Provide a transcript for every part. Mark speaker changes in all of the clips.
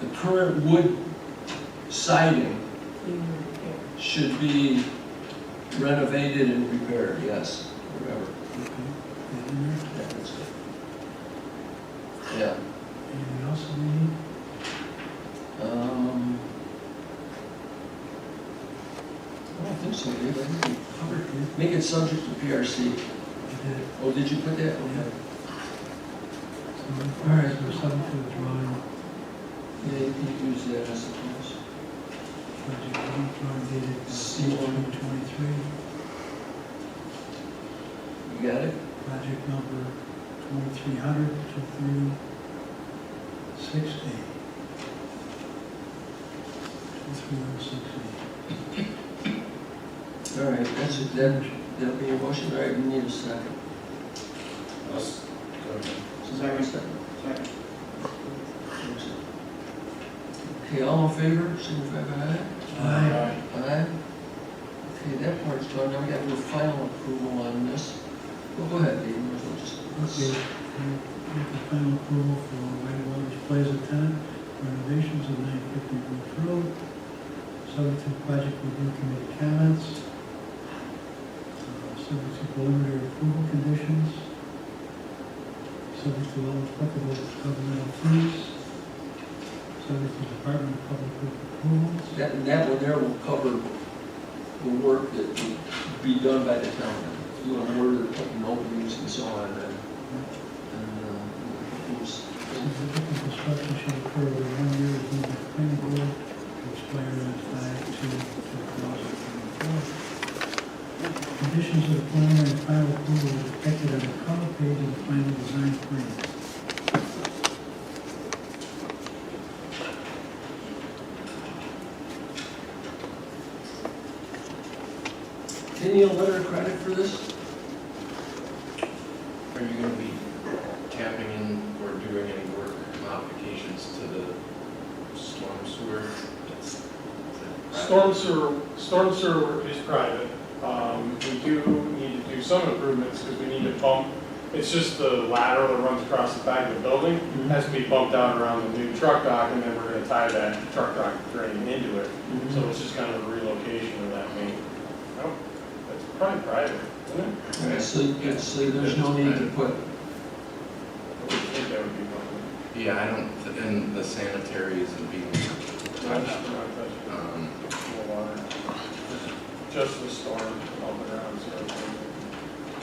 Speaker 1: the current wood siding should be renovated and repaired, yes, whatever. Yeah, that's good. Yeah.
Speaker 2: Anything else we need?
Speaker 1: Um, I don't think so, Dave, I think we covered it. Make it subject to PRC.
Speaker 2: We did.
Speaker 1: Oh, did you put that? Okay.
Speaker 2: So, All right, so something for the drawing,
Speaker 1: Yeah, you can use that, I suppose.
Speaker 2: project one, drawing dated
Speaker 1: C one.
Speaker 2: C1 23,
Speaker 1: You got it?
Speaker 2: project number 2300 to 360. 23160.
Speaker 1: All right, that's it, that, that'll be your motion, all right, we need a second.
Speaker 3: Second.
Speaker 1: Okay, all in favor, signify by aye.
Speaker 2: Aye.
Speaker 1: Aye. Okay, that part's done, now we gotta do a final approval on this. Well, go ahead, Dave, might as well just-
Speaker 2: Okay, and with the final approval for White Waters Plaza tenant renovations of nine fifty Roof Road, subject to project review committee comments, uh, subject to preliminary approval conditions, subject to all applicable governmental fees, subject to Department of Public Works approvals.
Speaker 1: That, that one there will cover the work that will be done by the town. You know, where they're putting openings and so on, and, and, uh, who's,
Speaker 2: Significant construction shall occur within one year of the planning board, to expire on five two two thousand twenty-four. Conditions of the plan and final approval are depicted on the color page of the final design plan.
Speaker 1: Any letter of credit for this?
Speaker 3: Are you gonna be tapping in or doing any work modifications to the storm sewer? That's- is that
Speaker 4: Storm sewer, storm sewer work is private. Um, We do need to do some improvements because we need to bump, it's just the lateral that runs across the back of the building.
Speaker 1: Mm-hmm.
Speaker 4: Has to be bumped out around the new truck dock and then we're gonna tie that truck dock drain into it.
Speaker 1: Mm-hmm.
Speaker 4: So it's just kind of a relocation of that main. I don't, that's probably private, isn't it?
Speaker 1: All right, so, yeah, so there's no need to put,
Speaker 4: I would think that would be public.
Speaker 3: Yeah, I don't, th- and the sanitary isn't being touched.
Speaker 4: Not
Speaker 3: Um,
Speaker 4: touching the water. Just the storm all around, so we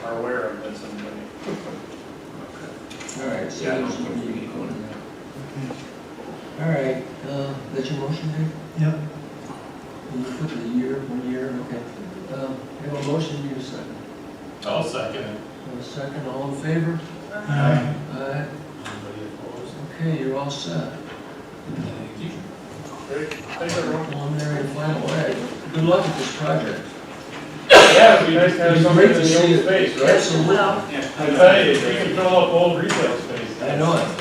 Speaker 4: are aware of this and
Speaker 3: okay.
Speaker 1: all right, so
Speaker 3: Yeah, I don't
Speaker 1: there's no
Speaker 3: think we
Speaker 1: need to
Speaker 3: need
Speaker 1: go
Speaker 3: one.
Speaker 1: in there. All
Speaker 2: Okay.
Speaker 1: right, uh, that's your motion, Dave?
Speaker 2: Yep,
Speaker 1: Can you put the year, one year, okay. Um, you have a motion, you have a second.
Speaker 5: I'll second it.
Speaker 1: Have a second, all in favor?
Speaker 2: aye.
Speaker 1: Aye.
Speaker 5: Anybody opposed?
Speaker 1: Okay, you're all set.
Speaker 5: Thank you.
Speaker 4: Great, thanks everyone.
Speaker 1: Preliminary and final, all right. Good luck with this project.
Speaker 4: Yeah, it'd be nice to have
Speaker 1: It'd be
Speaker 4: something
Speaker 1: great
Speaker 4: in
Speaker 1: to
Speaker 4: the
Speaker 1: see
Speaker 4: old
Speaker 1: it.
Speaker 4: space, right?
Speaker 1: Absolutely.
Speaker 4: I tell you, if we could fill up old retail space.
Speaker 1: I know it.